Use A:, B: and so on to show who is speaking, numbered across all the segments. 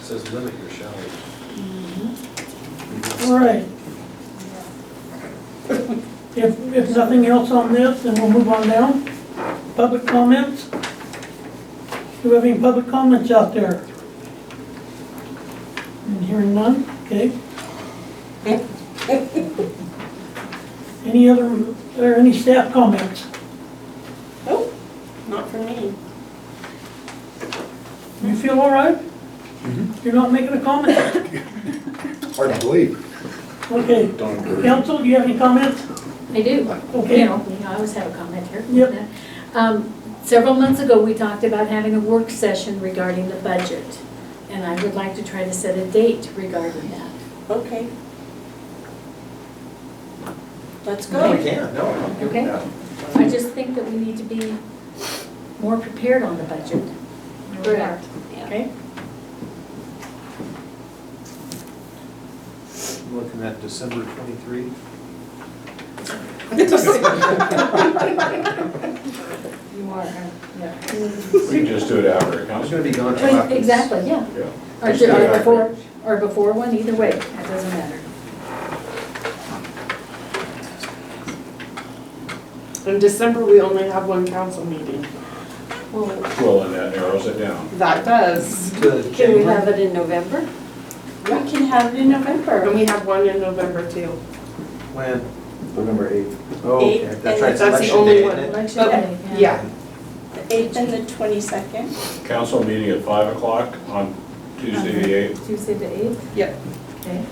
A: Says limit your showers.
B: All right. If, if nothing else on this, then we'll move on down. Public comments? Do we have any public comments out there? And hearing none, okay. Any other, or any staff comments?
C: Nope, not for me.
B: You feel all right? You're not making a comment?
D: Hard to believe.
B: Okay.
A: Don't
B: Council, do you have any comments?
E: I do, you
B: Okay.
E: know, you know, I always have a comment here.
B: Yep.
E: Um, Several months ago, we talked about having a work session regarding the budget, and I would like to try to set a date regarding that.
C: Okay. Let's
A: No, we
C: go.
A: can't, no, I don't give it
E: Okay.
A: that.
E: I just think that we need to be more prepared on the budget.
C: Correct.
E: Okay?
A: I'm Looking at December twenty-three.
E: You are, uh, yeah.
F: We can just do it after
A: I
F: a
A: was
F: council.
A: gonna be gone till after.
E: Exactly, yeah.
F: Yeah.
E: Or ju- or before, or before one, either way, that doesn't matter.
C: In December, we only have one council meeting.
E: Well,
F: Well, and that narrows it down.
C: That does.
A: To
E: can we
A: January.
E: have it in November?
C: We can have it in November. And we have one in November too.
A: When?
D: November eighth.
A: Oh, okay,
C: Eight,
A: that's
C: and
A: right,
C: that's
A: it's election
C: the only
A: day,
C: one.
A: isn't it?
E: Election day,
C: Yeah,
G: The eighth and the twenty-second.
F: Council meeting at five o'clock on Tuesday the eighth.
E: Tuesday the eighth,
C: yep.
E: okay?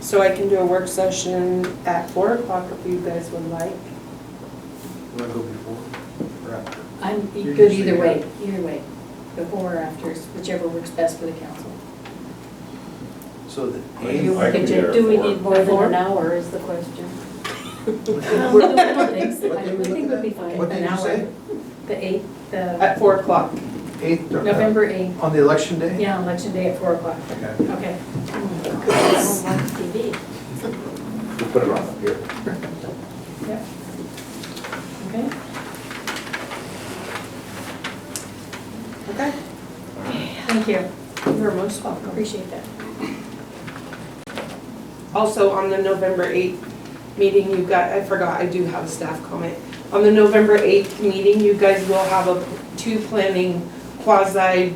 C: So I can do a work session at four o'clock if you guys would like.
A: Wanna go before or after?
E: I'm
A: You're
E: good
A: usually
E: either way, either way, before or after, whichever works best for the council.
A: So the
F: I
A: eighth.
F: can be there
E: Do we
F: for-
E: need more than
C: Four?
E: an hour is the question. Um,
A: What
E: I don't think so.
A: What day
E: I
A: we looking
E: think we'll be
A: at?
E: fine.
A: What
E: An
A: did you
E: hour.
A: say?
E: The eighth, the
C: At four o'clock.
A: Eighth or?
E: November eighth,
A: On the election day?
E: yeah, election day at four o'clock,
A: Okay.
E: okay.
D: We'll put it on up here.
E: Okay.
C: Okay.
E: Thank you,
C: You're most welcome.
E: appreciate that.
C: Also, on the November 8th meeting, you got, I forgot, I do have a staff comment. On the November 8th meeting, you guys will have a, two planning quasi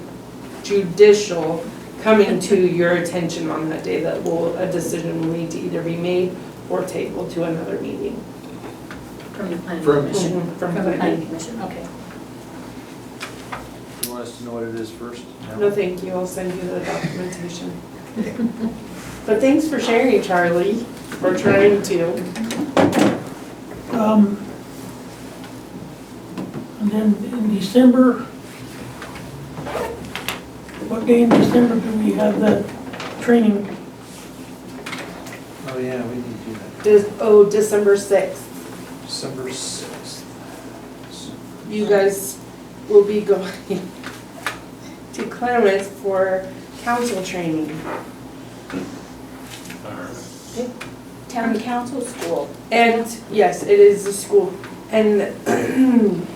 C: judicial coming to your attention on that day that will, a decision will need to either be made or tabled to another meeting.
E: From the planning
A: From-
E: commission.
C: From
E: From the planning
C: planning.
E: commission, okay.
A: You want us to know what it is first?
C: No, thank you, I'll send you the documentation. But thanks for sharing, Charlie, for trying to.
B: Um, And then in December, what day in December do we have the training?
A: Oh, yeah, we need to do that.
C: Des- Oh, December 6th.
A: December sixth.
C: you guys will be going to Clements for council training.
G: Town council school.
C: And, yes, it is the school. And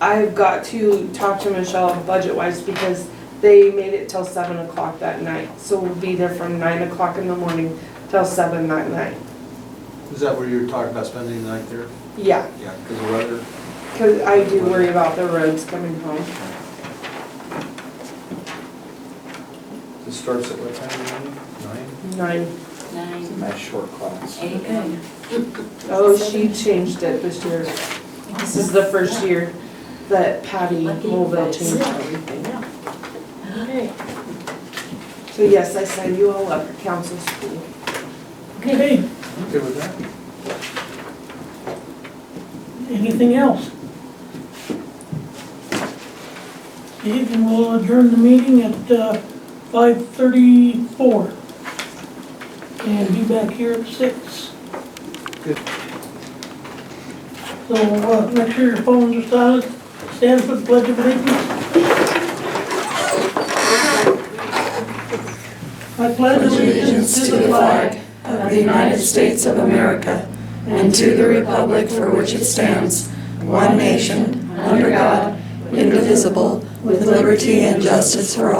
C: I've got to talk to Michelle budget-wise because they made it till seven o'clock that night. So we'll be there from nine o'clock in the morning till seven that night.
A: Is that where you were talking about spending the night there?
C: Yeah,
A: Yeah, because the weather.
C: because I do worry about the roads coming home.
A: It starts at what time of the Nine?
C: Nine.
D: It's a
G: Nine,
D: nice short class.
G: eight, nine.
C: Oh, she changed it this year. This is the first year that Patty
E: Lucky
C: Mulville
E: guys.
C: changed everything.
E: Okay.
C: So yes, I signed you all up for council school.
E: Okay,
B: Okay,
A: Good with that?
B: anything else? Okay, then we'll adjourn the meeting at uh, 5:34. And be back here at six.
A: Good.
B: So uh, make sure your phones are silent. Stand for the pledge of allegiance. I pledge
H: allegiance to the flag of the United States of America and to the republic for which it stands, one nation, under God, indivisible, with liberty and justice for all.